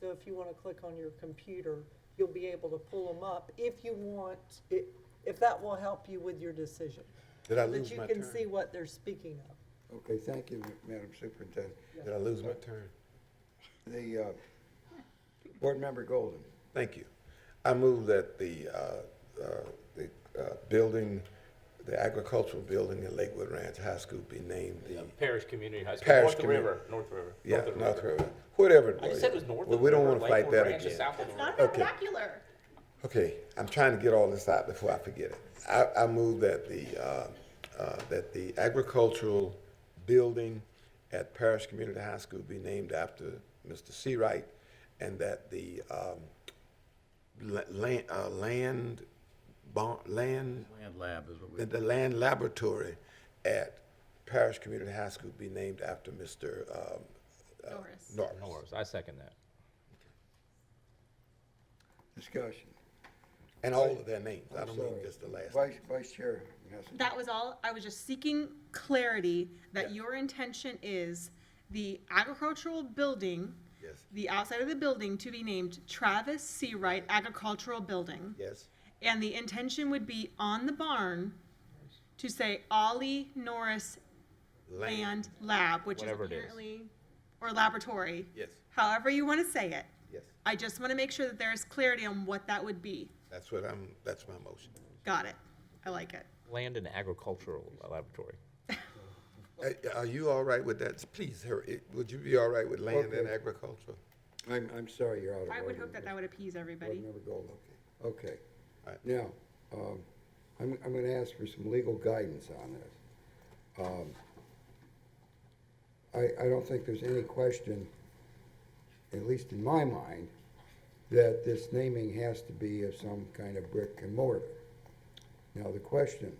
So if you want to click on your computer, you'll be able to pull them up if you want, i- if that will help you with your decision. Did I so lose my That you can turn? see what they're speaking of. Okay, thank you, Madam Superintendent. Did I lose my turn? The, uh, Board Member Golden, Thank you. I move that the, uh, uh, the uh, building, the agricultural building at Lakewood Ranch High School be named the, Parish Community High School, Parish North of the Commu- River, North of the River. yeah, of the North River, whatever it I was. just said it was north of Well, the we don't river, want to fight Lakewood that Ranch is again. south of the river. Not Okay. vernacular. Okay, I'm trying to get all this out before I forget it. I, I move that the, uh, uh, that the agricultural building at Parish Community High School be named after Mr. Seawright, and that the, um, la- land, uh, land, bon, land, Land lab is what we, that the land laboratory at Parish Community High School be named after Mr. um, Doris. Norris. Norris, I second that. discussion. And all of their names, I I'm don't mean sorry. just the last. name. Vice, Vice Chair Messenger. That was all. I was just seeking clarity that your intention is the agricultural building, Yes. the outside of the building to be named Travis C. Wright Agricultural Building. Yes, And the intention would be on the barn to say Ollie Norris Land Lab, which is Whatever it is. apparently, or laboratory. Yes. However you want to say it. yes, I just want to make sure that there is clarity on what that would be. that's what I'm, that's my motion. Got it. I like it. Land and Agricultural Laboratory. Uh, Are you all right with that? Please, hurry. would you be all right with land and Okay. agriculture? I'm, I'm sorry, you're out of order. I would hope that that would appease everybody. Board Member Golden, okay. All right. Now, um, I'm, I'm gonna ask for some legal guidance on this. Um, I, I don't think there's any question, at least in my mind, that this naming has to be of some kind of brick and mortar. Now, the question,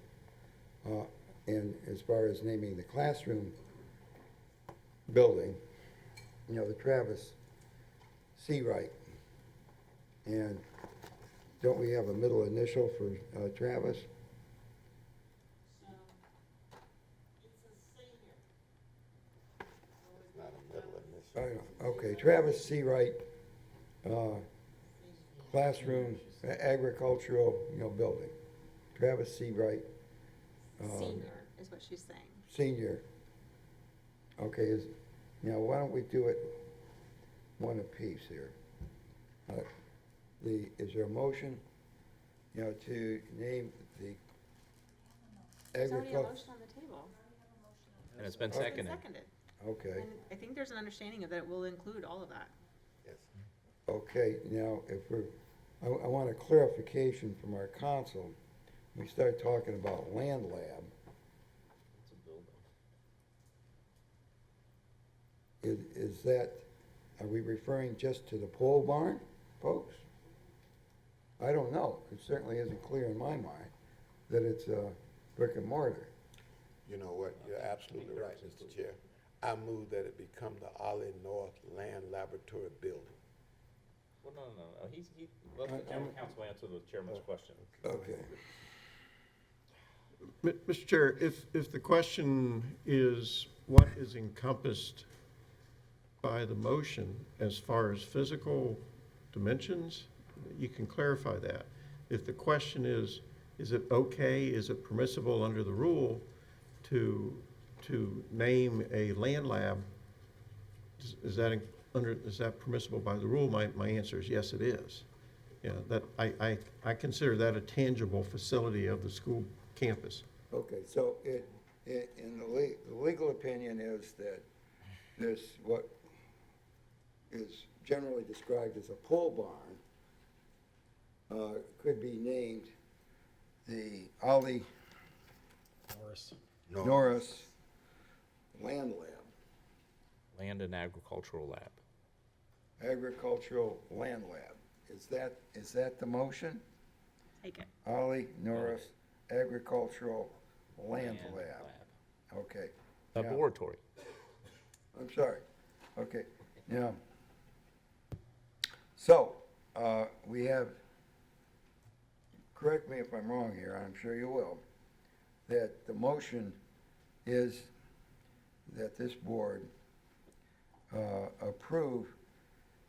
uh, and as far as naming the classroom building, you know, the Travis C. Wright. And don't we have a middle initial for uh, Travis? I don't know. Okay, Travis C. Wright, uh, classroom, a- agricultural, you know, building. Travis C. Wright, Senior is what she's saying. senior. Okay, is, now, why don't we do it one apiece here? Uh, The, is there a motion, you know, to name the agriculture? on the table. And it's been It's been seconded. Seconded. Okay, And I think there's an understanding of that it will include all of that. okay, now, if we're, I, I want a clarification from our council. We start talking about land lab. Is, is that, are we referring just to the pole barn, folks? I don't know. It certainly isn't clear in my mind that it's, uh, brick and mortar. You know what, you're absolutely right, Mr. Chair. I move that it become the Ollie North Land Laboratory Building. Well, no, no, no, he's, he, let the general counsel answer the Oh. chairman's question. Okay. M- Mr. Chair, if, if the question is what is encompassed by the motion as far as physical dimensions, you can clarify that. If the question is, is it okay, is it permissible under the rule to, to name a land lab? Is- Is that in- under, is that permissible by the rule? My, my answer is yes, it is. Yeah, that, I, I, I consider that a tangible facility of the school campus. Okay, so it, it, in the le- the legal opinion is that this, what is generally described as a pole barn, uh, could be named the Ollie Norris Land Lab, Land and Agricultural Lab. Agricultural Land Lab. Is that, is that the motion? Take it. Ollie Norris Agricultural Land Land Lab. Okay. now- Laboratory. I'm sorry. Okay, now, so, uh, we have, correct me if I'm wrong here, I'm sure you will, that the motion is that this board, uh, approve